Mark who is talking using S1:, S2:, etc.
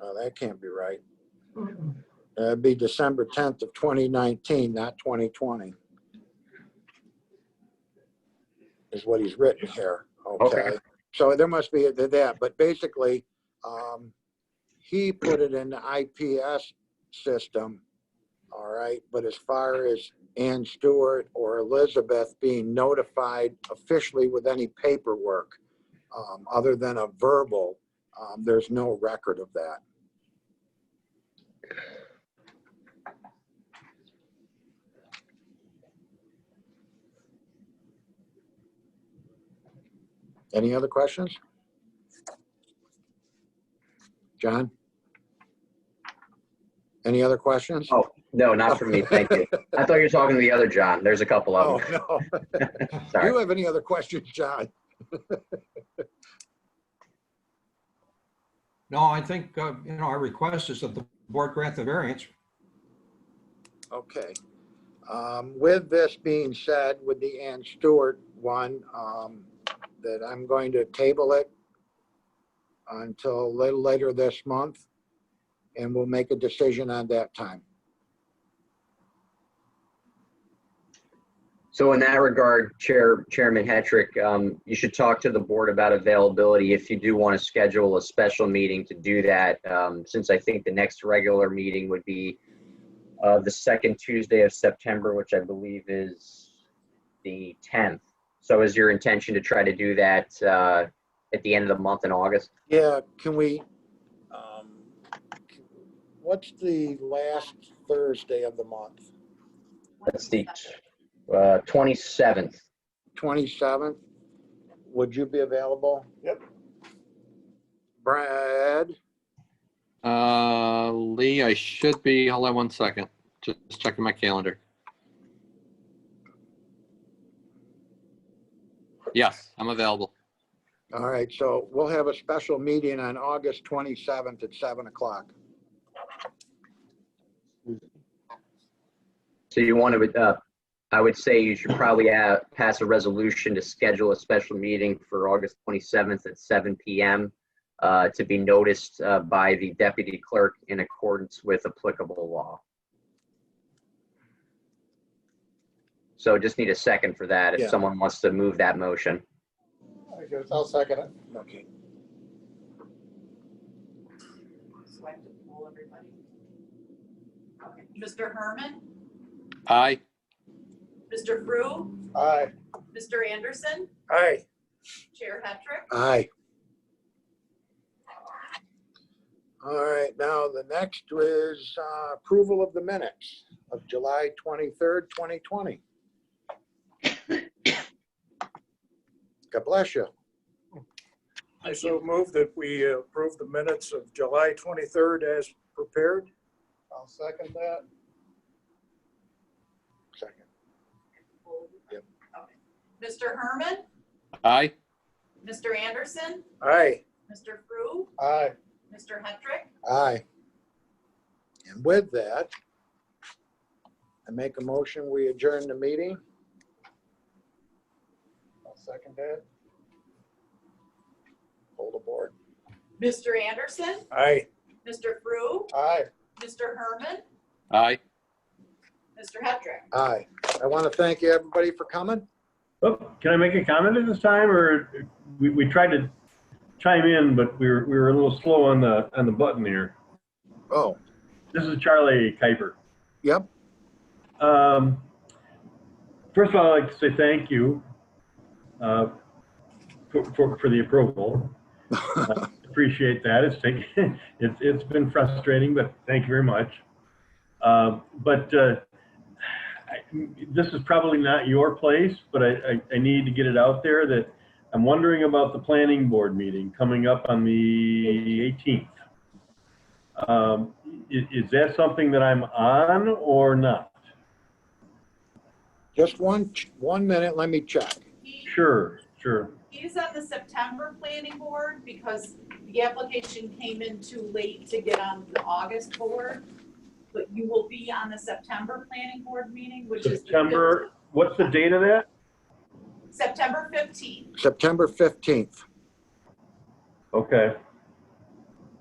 S1: No, Oh, that can't be right.
S2: Mm-mm.
S1: That'd be December 10th of 2019, not 2020. Is what he's written here, okay?
S3: Okay.
S1: So there must be that, but basically, um, he put it in the IPS system, all right? But as far as Ann Stewart or Elizabeth being notified officially with any paperwork, um, other than a verbal, um, there's no record of that. Any other questions? John? Any other questions?
S3: Oh, no, not for me. Thank you. I thought you were talking to the other John. There's a couple
S1: Oh,
S3: of them.
S1: no. Do
S3: Sorry.
S1: you have any other questions, John?
S4: No, I think, uh, you know, our request is that the board grant the variance.
S1: Okay. Um, With this being said, with the Ann Stewart one, um, that I'm going to table it until a little later this month, and we'll make a decision on that time.
S3: So in that regard, Chair, Chairman Hetrick, um, you should talk to the board about availability if you do want to schedule a special meeting to do that. Um, since I think the next regular meeting would be, uh, the second Tuesday of September, which I believe is the tenth. So is your intention to try to do that, uh, at the end of the month in August?
S1: Yeah, can we, um, what's the last Thursday of the month?
S3: That's the, uh, twenty-seventh.
S1: 27th? Would you be available?
S5: Yep.
S1: Brad?
S6: Uh, Lee, I should be, hold on one second, just checking my calendar. Yes, I'm available.
S1: All right, so we'll have a special meeting on August 27th at 7 o'clock.
S3: So you want to, uh, I would say you should probably uh, pass a resolution to schedule a special meeting for August 27th at 7 PM uh, to be noticed uh, by the deputy clerk in accordance with applicable law. So just need a second for that
S1: Yeah.
S3: if someone wants to move that motion.
S5: I guess I'll second it.
S1: Okay.
S2: So I have to poll everybody. Okay. Mr. Herman,
S6: Aye,
S2: Mr. Frew,
S5: Aye.
S2: Mr. Anderson,
S1: Aye.
S2: Chair Hetrick.
S1: Aye. All right, now the next is uh, approval of the minutes of July 23rd, 2020. God bless you.
S5: I so move that we approve the minutes of July 23rd as prepared. I'll second that.
S1: Second. Yep.
S2: Okay. Mr. Herman,
S6: aye,
S2: Mr. Anderson,
S1: Aye.
S2: Mr. Frew,
S5: Aye.
S2: Mr. Hetrick.
S1: Aye. And with that, I make a motion, we adjourn the meeting.
S5: I'll second that.
S1: Hold the board.
S2: Mr. Anderson,
S5: Aye.
S2: Mr. Frew,
S5: Aye.
S2: Mr. Herman,
S6: aye.
S2: Mr. Hetrick.
S1: Aye. I want to thank you, everybody, for coming.
S7: Oh, can I make a comment at this time, or we, we tried to chime in, but we were, we were a little slow on the, on the button here.
S1: Oh,
S7: This is Charlie Kuiper.
S1: yep,
S7: Um, first of all, I'd like to say thank you, uh, for, for, for the approval. Uh, Appreciate that. It's taken, it's, it's been frustrating, but thank you very much. Um, but, uh, I, this is probably not your place, but I, I, I need to get it out there that I'm wondering about the planning board meeting coming up on the 18th. Um, is, is that something that I'm on or not?
S1: just one, one minute, let me check.
S2: He-
S7: Sure, sure.
S2: He's on the September planning board because the application came in too late to get on the August board. But you will be on the September planning board meeting, which is. the
S7: September, what's the date of that?
S2: 15th September fifteenth.
S1: September 15th.
S7: Okay,